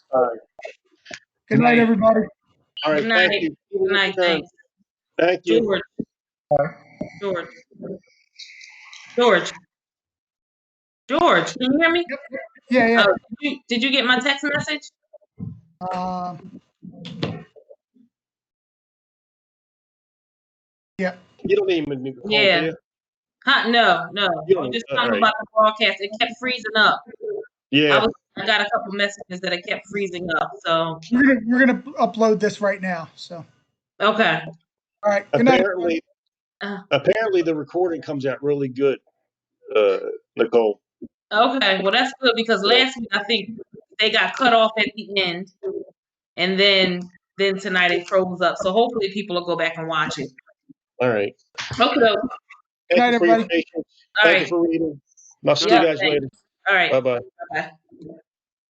All right. Good night, everybody. All right, Good thank night. you. Good night, thanks. Thank you. George. George. George. George, can you hear me? Yeah, yeah. Oh, did you- Did you get my text message? Um, yeah. You don't even need to call Yeah. in. Huh, no, no. You I'm just don't- talking alright. about the broadcast. It kept freezing up. I Yeah, was, I got a couple messages that it kept freezing up, so, We're gonna, we're gonna upload this right now. So, okay. all right. Good night. apparently, Uh. apparently the recording comes out really good, uh, Nicole. Okay, well, that's good because last week I think they got cut off at the end. And then, then tonight it froze up. So hopefully people will go back and watch it. All right. Okay, Night, Thank you for your everybody. patience. all Thank you right, for reading. I'll see you Yeah, guys thanks. later. all right. Bye-bye.